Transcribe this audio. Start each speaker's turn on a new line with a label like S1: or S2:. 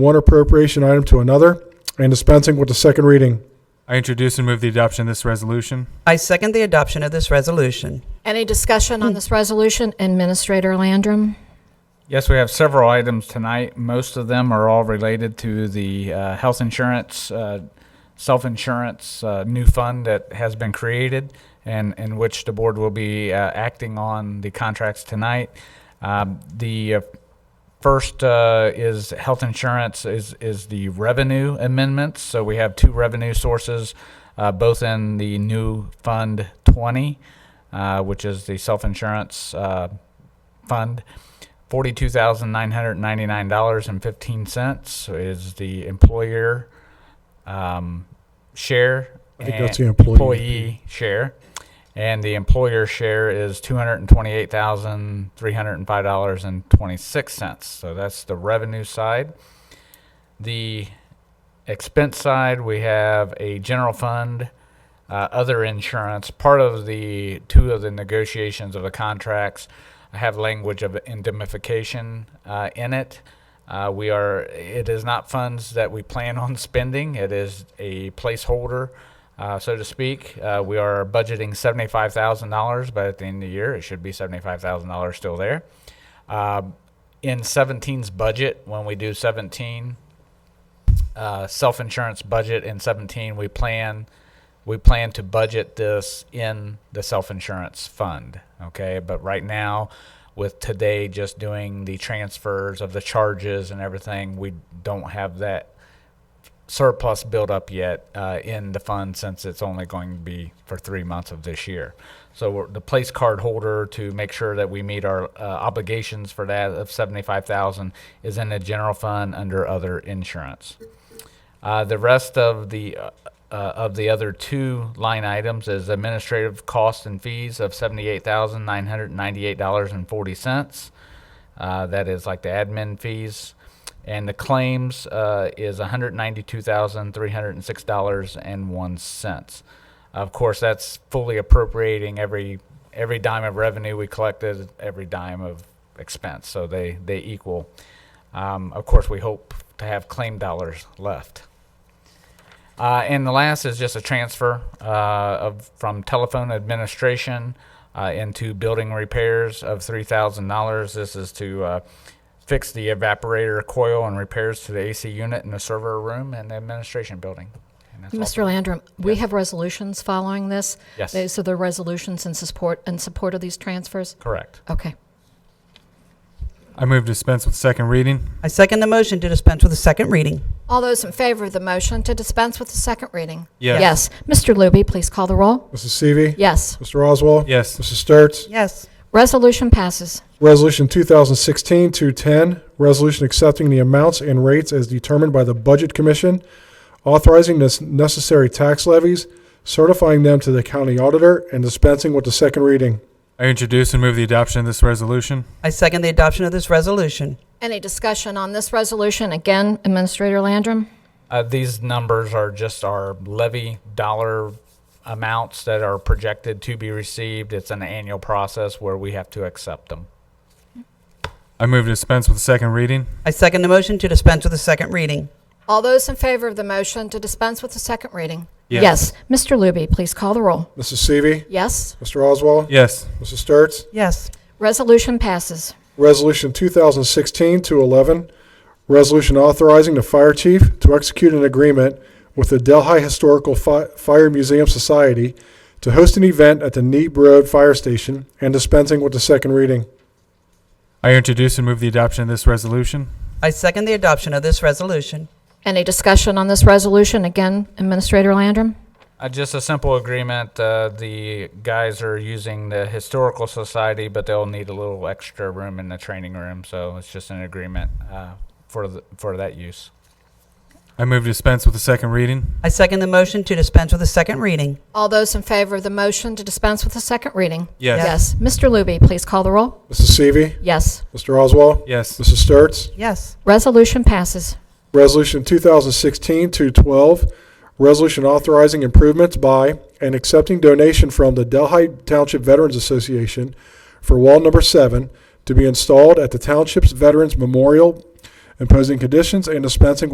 S1: one appropriation item to another, and dispensing with the second reading.
S2: I introduce and move the adoption of this resolution.
S3: I second the adoption of this resolution.
S4: Any discussion on this resolution? Administrator Landrum?
S5: Yes, we have several items tonight. Most of them are all related to the uh, health insurance, uh, self-insurance uh, new fund that has been created and in which the board will be uh, acting on the contracts tonight. Um, The uh, first uh, is health insurance is, is the revenue amendments. So we have two revenue sources, uh, both in the new Fund 20, uh, which is the self-insurance uh, fund. $42,999.15 is the employer um, share.
S1: I think
S5: and-
S1: that's the employee.
S5: employee share. And the employer share is $228,305.26. So that's the revenue side. The expense side, we have a general fund, uh, other insurance. Part of the two of the negotiations of the contracts have language of indemnification uh, in it. Uh, we are. It is not funds that we plan on spending. It is a placeholder, uh, so to speak. Uh, we are budgeting seventy-five thousand dollars, but at the end of the year, it should be seventy-five thousand dollars still there. Um in 17's budget, when we do 17, uh, self-insurance budget in 17 we plan we plan to budget this in the self-insurance fund okay but right now with today just doing the transfers of the charges and everything we don't have that surplus built up yet uh, in the fund since it's only going to be for three months of this year so we're, the place card holder to make sure that we meet our uh, obligations for that of 75000 is in the general fund under other insurance uh, the rest of the uh, uh, of the other two line items is administrative costs and fees of seventy-eight thousand nine hundred ninety-eight dollars and forty cents. Uh, that is like the admin fees, and the claims uh, is one hundred ninety-two thousand three hundred six dollars and one cents. Of course, that's fully appropriating every every dime of revenue we collected, every dime of expense. So they they equal. Um, of course, we hope to have claim dollars left. Uh, and the last is just a transfer uh, of from telephone administration uh, into building repairs of three thousand dollars. This is to uh, fix the evaporator coil and repairs to the AC unit in the server room and the administration building. And that's all.
S4: Mr. Landrum, we have resolutions following this.
S5: Yes.
S4: They- So there are resolutions in support, in support of these transfers?
S5: Correct.
S4: Okay.
S2: I move dispense with second reading.
S3: I second the motion to dispense with the second reading.
S4: All those in favor of the motion to dispense with the second reading?
S2: Yes.
S4: Yes. Mr. Luby, please call the roll.
S1: Mrs. Seavey.
S4: Yes.
S1: Mr. Oswald.
S2: Yes.
S1: Mrs. Sturts.
S3: Yes.
S4: Resolution passes.
S1: Resolution 2016-210, resolution accepting the amounts and rates as determined by the Budget Commission, authorizing the necessary tax levies, certifying them to the county auditor, and dispensing with the second reading.
S2: I introduce and move the adoption of this resolution.
S3: I second the adoption of this resolution.
S4: Any discussion on this resolution? Again, Administrator Landrum?
S5: Uh, these numbers are just our levy dollar amounts that are projected to be received. It's an annual process where we have to accept them.
S2: I move dispense with second reading.
S3: I second the motion to dispense with the second reading.
S4: All those in favor of the motion to dispense with the second reading?
S2: Yes.
S4: Mr. Luby, please call the roll.
S1: Mrs. Seavey.
S4: Yes.
S1: Mr. Oswald.
S2: Yes.
S1: Mrs. Sturts.
S3: Yes.
S4: Resolution passes.
S1: Resolution 2016-211, resolution authorizing the fire chief to execute an agreement with the Delhi Historical Fi- Fire Museum Society to host an event at the Neep Road Fire Station and dispensing with the second reading.
S2: I introduce and move the adoption of this resolution.
S3: I second the adoption of this resolution.
S4: Any discussion on this resolution? Again, Administrator Landrum?
S5: Uh, just a simple agreement. Uh, the guys are using the historical society, but they'll need a little extra room in the training room. So it's just an agreement uh, for the, for that use.
S2: I move dispense with the second reading.
S3: I second the motion to dispense with the second reading.
S4: All those in favor of the motion to dispense with the second reading?
S2: Yes.
S4: Yes. Mr. Luby, please call the roll.
S1: Mrs. Seavey.
S4: Yes.
S1: Mr. Oswald.
S2: Yes.
S1: Mrs. Sturts.
S3: Yes.
S4: Resolution passes.
S1: Resolution 2016-212, resolution authorizing improvements by and accepting donation from the Delhi Township Veterans Association for wall number seven to be installed at the township's Veterans Memorial imposing conditions and dispensing